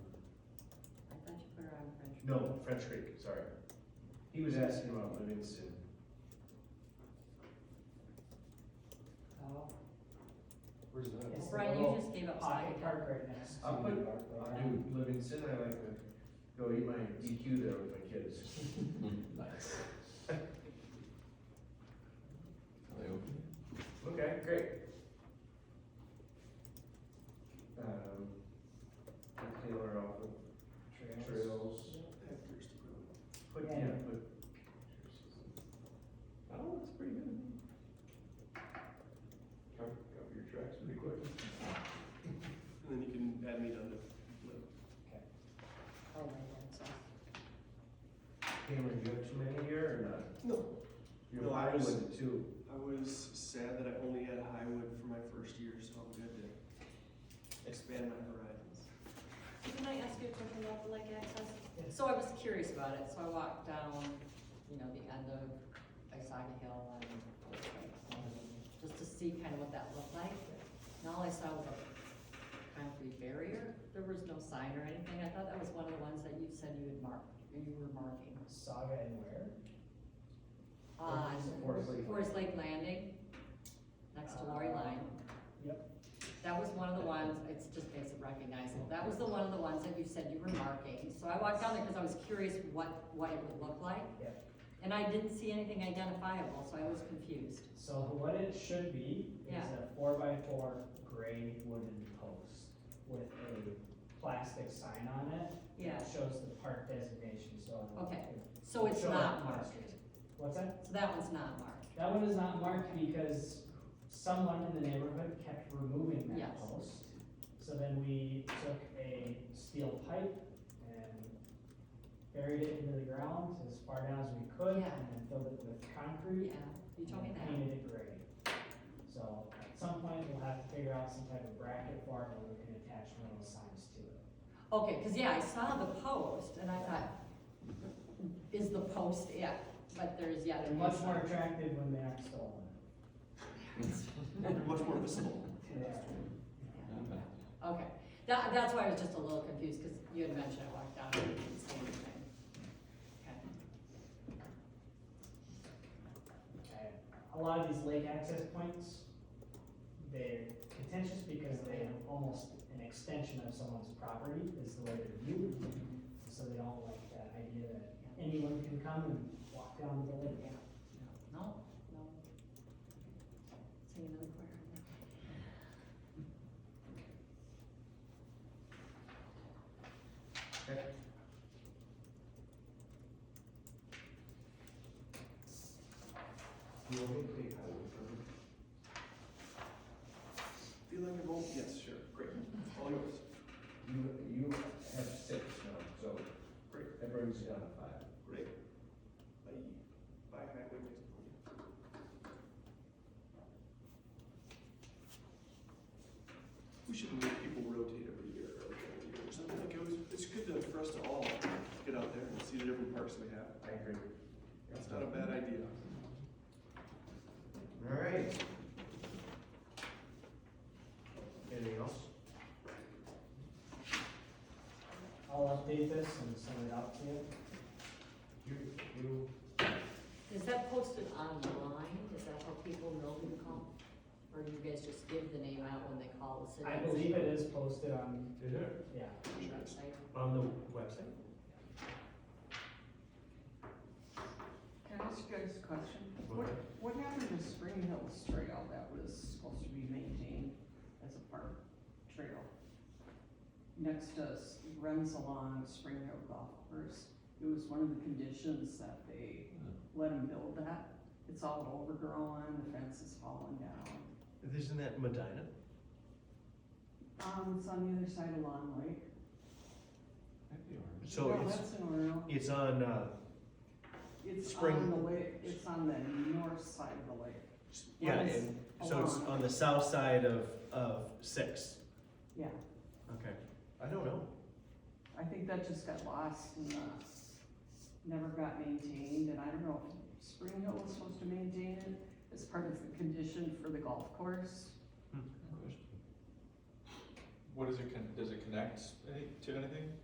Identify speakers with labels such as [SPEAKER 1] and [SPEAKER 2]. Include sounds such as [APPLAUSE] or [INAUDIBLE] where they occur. [SPEAKER 1] No, French Creek, sorry.
[SPEAKER 2] He was asking about Livingston. Where's
[SPEAKER 3] It's
[SPEAKER 2] that?
[SPEAKER 3] Brian, you just gave up Scotty.
[SPEAKER 4] Pocket Oh, park right next to.
[SPEAKER 2] I'll put,
[SPEAKER 4] Park.
[SPEAKER 2] I'll do Livingston, I like to go eat my DQ there with my kids. [LAUGHS]
[SPEAKER 5] Nice. Are they open?
[SPEAKER 2] Okay, great. Um, put Taylor off of trails. Put, yeah, put.
[SPEAKER 5] Oh, that's pretty good. Cover, cover your tracks pretty quick.
[SPEAKER 1] And then you can add meat on
[SPEAKER 3] Oh, my God, so-
[SPEAKER 2] Cameron, you have too many here or not?
[SPEAKER 1] No,
[SPEAKER 2] You're
[SPEAKER 1] No, I
[SPEAKER 2] fine
[SPEAKER 1] was-
[SPEAKER 2] with it too.
[SPEAKER 1] I was sad that I only had Highwood for my first year, so I'm good to expand my horizons.
[SPEAKER 3] Can I ask you a question about the lake access? So I was curious about it, so I walked down, you know, the end of Isaga Hill and just to see kind of what that looked like. And all I saw was a concrete barrier, there was no sign or anything, I thought that was one of the ones that you said you had marked, or you were marking.
[SPEAKER 4] Saga and where?
[SPEAKER 3] On
[SPEAKER 2] Forest Lake.
[SPEAKER 3] Uh, Forest Lake Landing, next to Lori Line.
[SPEAKER 4] Yep.
[SPEAKER 3] That was one of the ones, it's just makes it recognizable, that was the one of the ones that you said you were marking, so I walked down there because I was curious what, what it would look like.
[SPEAKER 4] Yep.
[SPEAKER 3] And I didn't see anything identifiable, so I was confused.
[SPEAKER 4] So what it should be is
[SPEAKER 3] Yeah.
[SPEAKER 4] a four by four gray wooden post with a plastic sign on it.
[SPEAKER 3] Yeah,
[SPEAKER 4] It shows the park designation, so.
[SPEAKER 3] Okay.
[SPEAKER 4] it-
[SPEAKER 3] so it's
[SPEAKER 4] shows
[SPEAKER 3] not
[SPEAKER 4] the
[SPEAKER 3] marked,
[SPEAKER 4] markers. What's that?
[SPEAKER 3] so that one's not marked,
[SPEAKER 4] That one is not marked because someone in the neighborhood kept removing that
[SPEAKER 3] Yes.
[SPEAKER 4] post. So then we took a steel pipe and buried it into the ground as far down as we could and
[SPEAKER 3] Yeah.
[SPEAKER 4] then filled it with concrete.
[SPEAKER 3] yeah, you told me
[SPEAKER 4] and
[SPEAKER 3] that,
[SPEAKER 4] Painted it gray. So at some point, we'll have to figure out some type of bracket for it and we can attach one of those signs to it.
[SPEAKER 3] okay, because yeah, I saw the post and I thought, is the post it? But there's, yeah,
[SPEAKER 4] They're
[SPEAKER 3] there's.
[SPEAKER 4] much more attractive when they aren't stolen.
[SPEAKER 1] They're much more visible.
[SPEAKER 4] They are.
[SPEAKER 3] Okay, that, that's why I was just a little confused, because you had mentioned I walked down and didn't see anything. Okay.
[SPEAKER 4] Okay. A lot of these lake access points, they're contentious because they are almost an extension of someone's property is the way they're viewed. So they don't like that idea that anyone can come and walk down the lake.
[SPEAKER 3] No, no. Sing another choir.
[SPEAKER 2] You want me to take Highwood from you?
[SPEAKER 1] Feel like a bowl? Yes, sure, great, all yours.
[SPEAKER 2] You, you have six now, so
[SPEAKER 1] Great.
[SPEAKER 2] that brings you down to five.
[SPEAKER 1] Great. Bye. Bye, Highwood. We should make people rotate every year or every year or something like it was, it's good to, for us to all get out there and see the different parks we have.
[SPEAKER 2] I agree.
[SPEAKER 1] It's not a bad idea.
[SPEAKER 2] All right. Anything else?
[SPEAKER 4] I'll update this and send it out to you.
[SPEAKER 2] You, you,
[SPEAKER 3] Is that posted online? Is that how people know who to call? Or do you guys just give the name out when they call the city?
[SPEAKER 4] I believe it is posted on,
[SPEAKER 2] is it
[SPEAKER 4] yeah.
[SPEAKER 3] Website?
[SPEAKER 2] on the website?
[SPEAKER 6] Can I ask you guys a question?
[SPEAKER 2] What?
[SPEAKER 6] What, what happened to Spring Hills Trail that was supposed to be maintained as a park trail? Next to S- Ren Salon, Spring Hill Golf Course, it was one of the conditions that they let them build that. It's all overgrown, the fence is falling down.
[SPEAKER 7] Isn't that Medina?
[SPEAKER 6] Um, it's on the other side of Long Lake.
[SPEAKER 7] So
[SPEAKER 6] No,
[SPEAKER 7] it's,
[SPEAKER 6] that's in Orno.
[SPEAKER 7] it's on, uh,
[SPEAKER 6] It's on
[SPEAKER 7] Spring-
[SPEAKER 6] the lake, it's on the north side of the lake.
[SPEAKER 7] yeah,
[SPEAKER 6] Yes.
[SPEAKER 7] and, so it's
[SPEAKER 6] Along.
[SPEAKER 7] on the south side of, of six.
[SPEAKER 6] Yeah,
[SPEAKER 7] Okay. I don't know.
[SPEAKER 6] I think that just got lost and, uh, never got maintained, and I don't know if Spring Hill was supposed to maintain it as part of the condition for the golf course.
[SPEAKER 5] What does it, con- does it connect any- to anything?